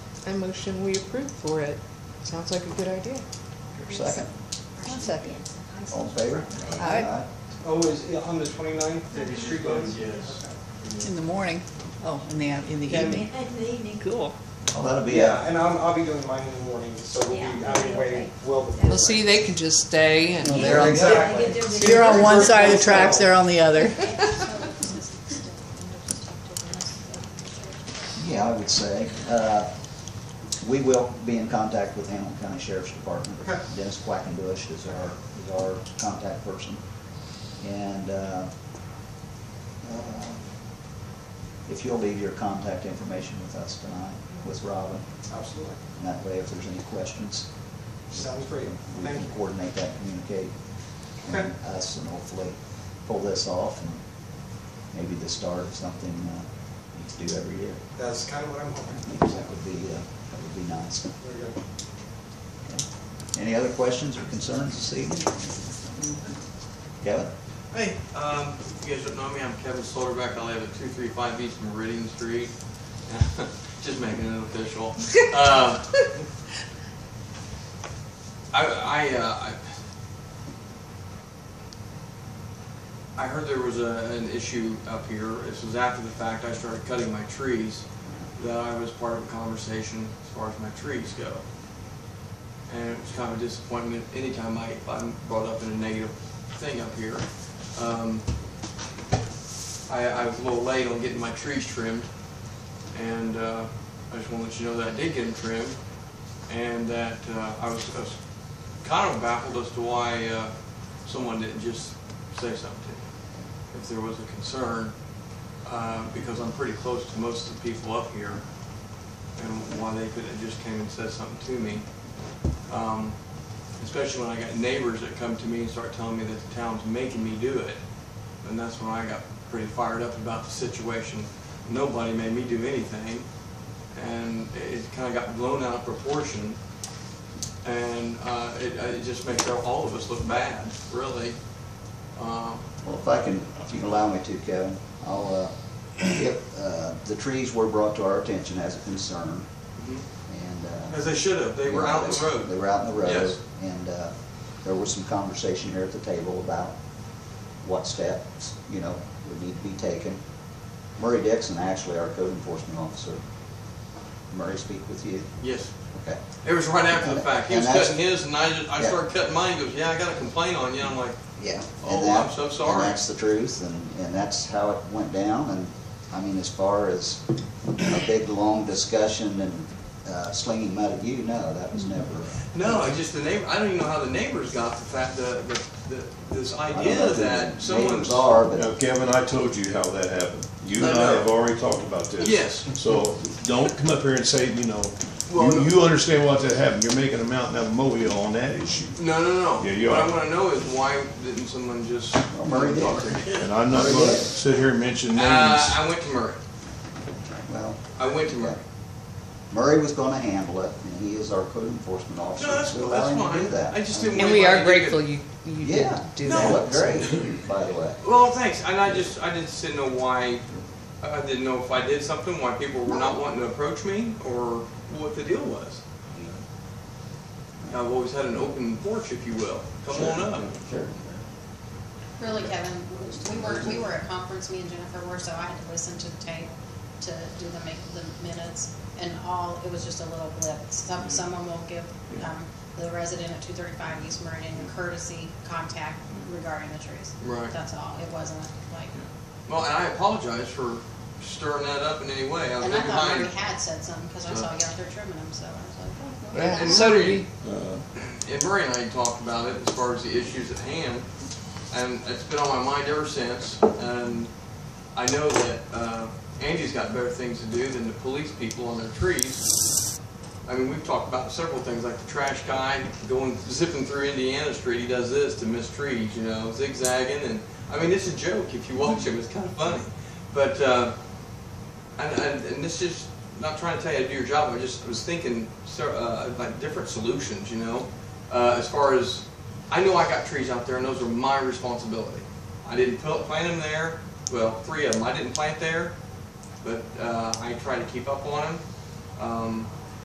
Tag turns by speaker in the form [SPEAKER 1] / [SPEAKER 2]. [SPEAKER 1] I motion we approve for it. Sounds like a good idea.
[SPEAKER 2] Second,
[SPEAKER 3] One second.
[SPEAKER 2] all in favor?
[SPEAKER 3] Aye.
[SPEAKER 4] Oh, is it on the twenty-ninth, the street lights?
[SPEAKER 5] Yes.
[SPEAKER 3] In the morning. Oh, in the, in the
[SPEAKER 4] Yeah.
[SPEAKER 3] evening. Cool.
[SPEAKER 2] Well, that'll be,
[SPEAKER 4] Yeah,
[SPEAKER 2] uh,
[SPEAKER 4] and I'm, I'll be doing mine in the morning, so we'll be
[SPEAKER 6] Yeah.
[SPEAKER 4] out of the way well before.
[SPEAKER 1] Well, see, they could just stay and.
[SPEAKER 2] Well, there I go.
[SPEAKER 3] You're on one side of the tracks, they're on the other.
[SPEAKER 2] yeah, I would say, uh, we will be in contact with Hamilton County Sheriff's Department.
[SPEAKER 4] Okay.
[SPEAKER 2] Dennis Quackenbush is our, is our contact person. And, uh, uh, if you'll leave your contact information with us tonight, with Robin,
[SPEAKER 4] Absolutely,
[SPEAKER 2] and that way if there's any questions,
[SPEAKER 4] sounds
[SPEAKER 2] we
[SPEAKER 4] great, thank
[SPEAKER 2] can
[SPEAKER 4] you.
[SPEAKER 2] coordinate that, communicate,
[SPEAKER 4] Okay.
[SPEAKER 2] and us, and hopefully pull this off, and maybe the start of something uh, we do every year.
[SPEAKER 4] That's kind of what I'm hoping.
[SPEAKER 2] That would be, uh, that would be nice.
[SPEAKER 4] There we go.
[SPEAKER 2] Any other questions or concerns this evening? Kevin?
[SPEAKER 5] Hey, um, if you guys don't know me, I'm Kevin Solderbeck. I live at two three five East Meridian Street. Just making it official. Uh, I, I, uh, I, I heard there was a, an issue up here. This was after the fact. I started cutting my trees. That I was part of a conversation as far as my trees go. And it was kind of a disappointment anytime I, I'm brought up in a negative thing up here. Um, I, I was a little late on getting my trees trimmed, and, uh, I just wanna let you know that I did get them trimmed, and that, uh, I was, I was kind of baffled as to why, uh, someone didn't just say something, if there was a concern, uh, because I'm pretty close to most of the people up here, and why they couldn't have just came and said something to me. Um, especially when I got neighbors that come to me and start telling me that the town's making me do it. And that's when I got pretty fired up about the situation. Nobody made me do anything, and it- it kind of got blown out of proportion. And uh, it, it just makes all of us look bad, really. Uh,
[SPEAKER 2] Well, if I can, if you can allow me to, Kevin, I'll, uh, if, uh, the trees were brought to our attention as a concern, and. uh,
[SPEAKER 5] mhm. As they should have, they were out in the
[SPEAKER 2] They
[SPEAKER 5] road.
[SPEAKER 2] were out in the road.
[SPEAKER 5] Yes.
[SPEAKER 2] And uh, there was some conversation here at the table about what steps, you know, would need to be taken. Murray Dixon, actually, our code enforcement officer, Murray speak with you?
[SPEAKER 5] Yes.
[SPEAKER 2] Okay.
[SPEAKER 5] It was right after the fact. He
[SPEAKER 2] And
[SPEAKER 5] was
[SPEAKER 2] that's-
[SPEAKER 5] cutting his, and I, just- I
[SPEAKER 2] Yeah.
[SPEAKER 5] started cutting mine, he goes, yeah, I got a complaint on you. I'm like,
[SPEAKER 2] Yeah. and
[SPEAKER 5] Oh,
[SPEAKER 2] that-
[SPEAKER 5] I'm so sorry.
[SPEAKER 2] And that's the truth, and, and that's how it went down, and, I mean, as far as a big, long discussion and uh, slinging mud at you, no, that
[SPEAKER 5] Hmm.
[SPEAKER 2] was never.
[SPEAKER 5] No, I just the neighbor. I don't even know how the neighbors got the fact the, the, the this
[SPEAKER 2] I don't know
[SPEAKER 5] idea
[SPEAKER 2] who the
[SPEAKER 5] that someone's
[SPEAKER 2] neighbors are, but
[SPEAKER 7] Now, Kevin, I told you how that happened. You and
[SPEAKER 5] I
[SPEAKER 7] I
[SPEAKER 5] know.
[SPEAKER 7] have already talked about this.
[SPEAKER 5] Yes.
[SPEAKER 7] So don't come up here and say, you know,
[SPEAKER 5] Well, no.
[SPEAKER 7] you, you understand what that happened. You're making a mountain out of a molehill on that issue.
[SPEAKER 5] no, no, no.
[SPEAKER 7] Yeah, you
[SPEAKER 5] what
[SPEAKER 7] are.
[SPEAKER 5] I want to know is why didn't someone just
[SPEAKER 2] Well, Murray did.
[SPEAKER 5] talk to me?
[SPEAKER 7] And I'm not gonna sit here and mention names.
[SPEAKER 5] Uh, I went to Murray.
[SPEAKER 2] Well,
[SPEAKER 5] I went to Murray.
[SPEAKER 2] Murray was gonna handle it, and he is our code enforcement officer.
[SPEAKER 5] No, that's
[SPEAKER 2] We allow
[SPEAKER 5] that's
[SPEAKER 2] him to do
[SPEAKER 5] fine.
[SPEAKER 2] that.
[SPEAKER 5] I just didn't.
[SPEAKER 1] And
[SPEAKER 5] want
[SPEAKER 1] we are
[SPEAKER 5] anybody to
[SPEAKER 1] grateful
[SPEAKER 5] get-
[SPEAKER 1] you, you did
[SPEAKER 2] Yeah,
[SPEAKER 1] do
[SPEAKER 2] no,
[SPEAKER 1] that.
[SPEAKER 2] looked great, by the way.
[SPEAKER 5] Well, thanks. And I just I just didn't know why. I didn't know if I did something, why people were not wanting to approach me, or what the deal was. I've always had an open porch, if you will. Come
[SPEAKER 2] Sure.
[SPEAKER 5] on up.
[SPEAKER 2] Sure.
[SPEAKER 6] Really, Kevin, we were, we were at conference, me and Jennifer were, so I had to listen to the tape to do the make, the minutes. And all, it was just a little blip. Some, someone will give, um, the resident at two thirty-five East Meridian courtesy contact regarding the trees.
[SPEAKER 5] Right.
[SPEAKER 6] That's all. It wasn't like,
[SPEAKER 5] Well, and I apologize for stirring that up in any way. I was
[SPEAKER 6] and I
[SPEAKER 5] in
[SPEAKER 6] thought
[SPEAKER 5] mind.
[SPEAKER 6] Mary had said something, cause I saw you out there trimming them, so I was like, oh. well.
[SPEAKER 1] Yeah,
[SPEAKER 5] And
[SPEAKER 1] so did
[SPEAKER 5] Murray,
[SPEAKER 1] we.
[SPEAKER 5] And Murray and I talked about it as far as the issues at hand, and it's been on my mind ever since. And I know that uh, Angie's got better things to do than to police people on their trees. I mean, we've talked about several things, like the trash guy going zipping through Indiana Street. He does this to miss trees, you know, zigzagging, and I mean, it's a joke if you watch him. It's kind of funny, but. Uh, And, and, and this is not trying to tell you to do your job. I just was thinking so, uh, like different solutions, you know, uh, as far as I know I got trees out there and those are my responsibility. I didn't pl- plant them there. Well, three of them I didn't plant there, but uh, I try to keep up on them. Um,